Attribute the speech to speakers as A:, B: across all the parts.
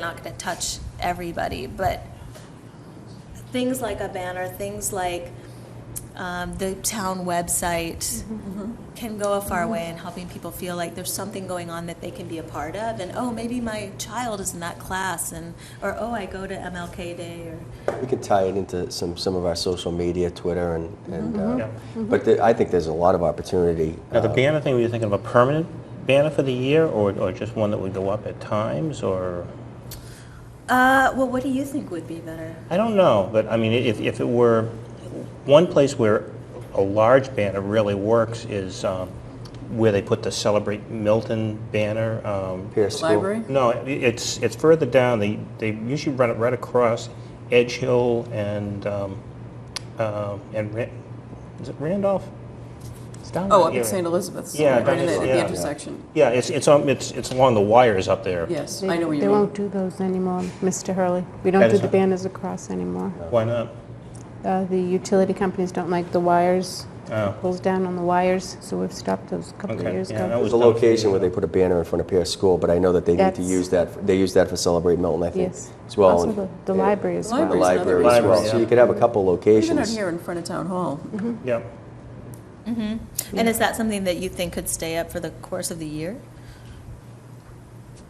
A: not going to touch everybody, but things like a banner, things like um, the town website can go a far way in helping people feel like there's something going on that they can be a part of, and oh, maybe my child is in that class, and or oh, I go to MLK Day, or
B: We could tie it into some, some of our social media, Twitter, and, and uh, but the, I think there's a lot of opportunity.
C: Now, the
B: uh,
C: banner thing, were you thinking of a permanent banner for the year or, or just one that would go up at times or?
A: uh, well, what do you think would be better?
C: I don't know, but I mean, if, if it were, one place where a large banner really works is um, where they put the Celebrate Milton banner. um,
B: Pierce School.
D: Library?
C: No, it- it's, it's further down, they, they usually run it right across Edge Hill and, um, uh, and, Ra- is it Randolph? It's down
D: Oh,
C: that
D: up
C: area.
D: at St. Elizabeth's,
C: Yeah,
D: right
C: that
D: in
C: is-
D: the-
C: yeah.
D: the intersection.
C: Yeah, it's, it's, on- it's, it's along the wires up there.
D: Yes,
E: They-
D: I know what you
E: They
D: mean.
E: won't do those anymore, Mr. Hurley. We
C: That
E: don't do
C: is
E: the
C: not-
E: banners across anymore.
C: Why not?
E: Uh, The utility companies don't like the wires,
C: Oh.
E: pulls down on the wires, so we've stopped those a couple
C: Okay,
E: of years
C: yeah, that
E: ago.
B: There's a
C: was done a few
B: location
C: years
B: where they
C: ago.
B: put a banner in front of Pierce School, but I know that they need to
E: That's-
B: use that. For, they use that for Celebrate Milton, I think,
E: Yes.
B: as well.
E: Also
B: and-
E: the- the
B: yeah,
E: library as
B: the
E: well.
D: Library's another
B: library as
C: reason.
B: well. So you could have a couple locations.
D: Even out here in front of Town Hall.
C: Yeah.
A: And is that something that you think could stay up for the course of the year?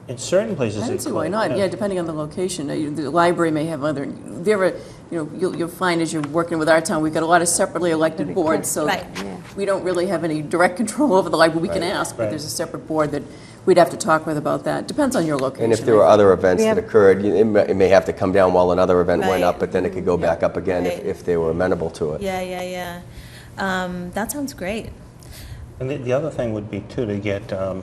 C: In certain places.
D: I
C: it
D: don't see why
C: could,
D: not, yeah, depending on the location. Uh, you- The library may have other, there are, you know, you'll, you'll find as you're working with our town, we've got a lot of separately elected boards, so
A: Right.
E: Yeah.
D: we don't really have any direct control over the library. We can ask, but
C: Right.
D: there's a separate board that we'd have to talk with about that. Depends on your location.
B: And if
D: I
B: there were
D: think.
B: other events
E: We
B: that
E: have-
B: occurred, you- it may, it may have to come down while another event went
A: Right.
B: up, but then it could go back up again if,
A: Right.
B: if they were amenable to it.
A: Yeah, yeah, yeah. Um, that sounds great.
C: And the, the other thing would be too, to get, um,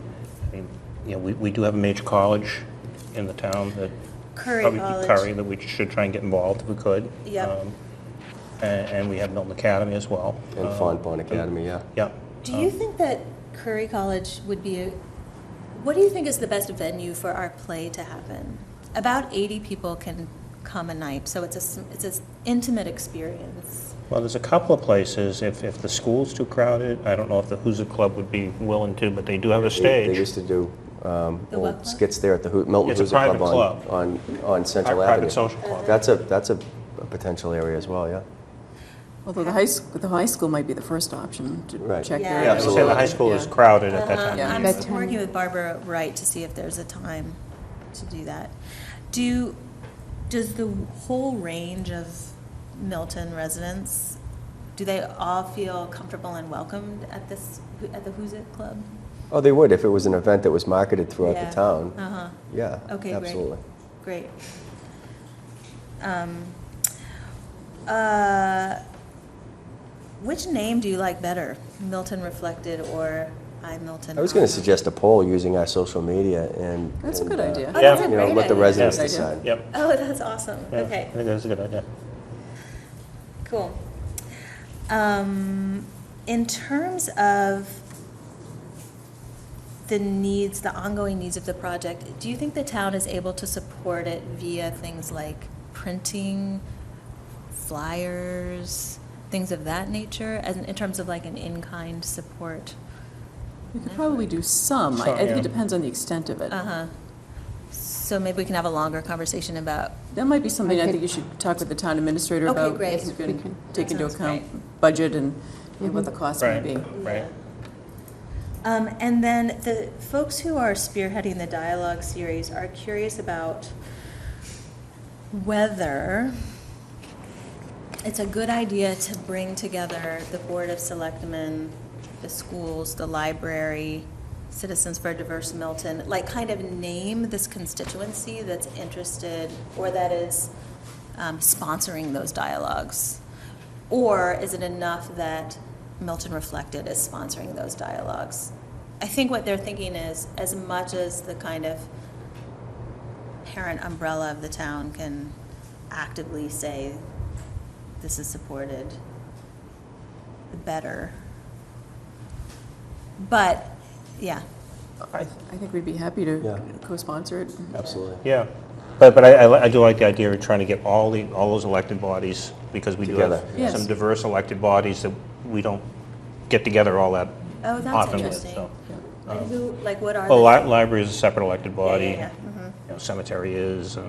C: I mean, you know, we, we do have a major college in the town that.
A: Curry
C: probably
A: College.
C: Curry, that we should try and get involved if we could.
A: Yep.
C: Um, And, and we have Milton Academy as well.
B: And
C: Um,
B: Fontbonne Academy, yeah.
C: Yeah.
A: Do you think that Curry College would be a, what do you think is the best venue for our play to happen? About 80 people can come a night, so it's a, s- it's an intimate experience.
C: Well, there's a couple of places, if, if the school's too crowded, I don't know if the Hoosier Club would be willing to, but they do have a
B: They-
C: stage.
B: They used to do um,
A: The what
B: old
A: club?
B: skits there at the Hoo- Milton
C: It's a
B: Hoosier Club
C: private
B: on,
C: club.
B: on, on
C: Pri-
B: Central
C: Private
B: Avenue.
C: social club.
B: That's a, that's a a potential area as well, yeah.
D: Although the high, sc- the high school might be the first option to
B: Right.
D: check
A: Yeah.
D: their.
C: Yeah, so say the high school is
D: Yeah.
C: crowded at that time.
D: Yeah.
A: I'm
E: Bedtime.
A: working with Barbara Wright to see if there's a time to do that. Do, does the whole range of Milton residents, do they all feel comfortable and welcomed at this, at the Who's It Club?
B: Oh, they would if it was an event that was marketed throughout
A: Yeah.
B: the town.
A: Uh-huh.
B: Yeah,
A: Okay, great.
B: absolutely.
A: Great. Um, uh, Which name do you like better, Milton Reflected or I Milton?
B: I was going to
A: Honor?
B: suggest a poll using our social media and.
D: That's a
B: and,
D: good
B: uh,
D: idea.
A: Oh,
C: Yeah.
A: that's a
B: You know,
A: great
B: let the
A: idea.
B: residents
D: Good idea.
B: decide.
C: Yep.
A: Oh, that's awesome.
C: Yeah,
A: Okay,
C: I think that's a good idea.
A: cool. Um, In terms of the needs, the ongoing needs of the project, do you think the town is able to support it via things like printing, flyers, things of that nature, as in in terms of like an in-kind support?
D: You could probably do some. I I
C: Some,
D: think
C: yeah.
D: it depends on the extent of it.
A: Uh-huh. So maybe we can have a longer conversation about,
D: That might be something I
E: Okay.
D: think you should talk with the town administrator
A: Okay,
D: about.
A: great.
D: If you're going
E: We
D: to
E: can.
D: take
A: That
D: into
A: sounds
D: account budget and and what the cost may
C: Right,
D: be.
C: right.
A: Um, and then the folks who are spearheading the dialogue series are curious about whether it's a good idea to bring together the Board of Selectmen, the schools, the library, Citizens for Diverse Milton, like kind of name this constituency that's interested or that is um, sponsoring those dialogues? Or is it enough that Milton Reflected is sponsoring those dialogues? I think what they're thinking is, as much as the kind of parent umbrella of the town can actively say, this is supported, the better. But, yeah,
C: I-
D: I think we'd be happy
B: Yeah.
D: to co-sponsor it.
B: Absolutely.
C: Yeah, but, but I, I li- I do like the idea of trying to get all the, all those elected bodies, because we do
B: Together,
C: have
D: yeah.
C: some
D: Yes.
C: diverse elected bodies that we don't get together all that
A: oh, that's
C: often with,
A: interesting.
C: so.
D: Yeah.
A: And who, like, what are
C: Well,
A: the?
C: li- library is a separate elected
A: Yeah, yeah,
C: body.
A: yeah. Mhm.
C: you know, cemetery is, uh,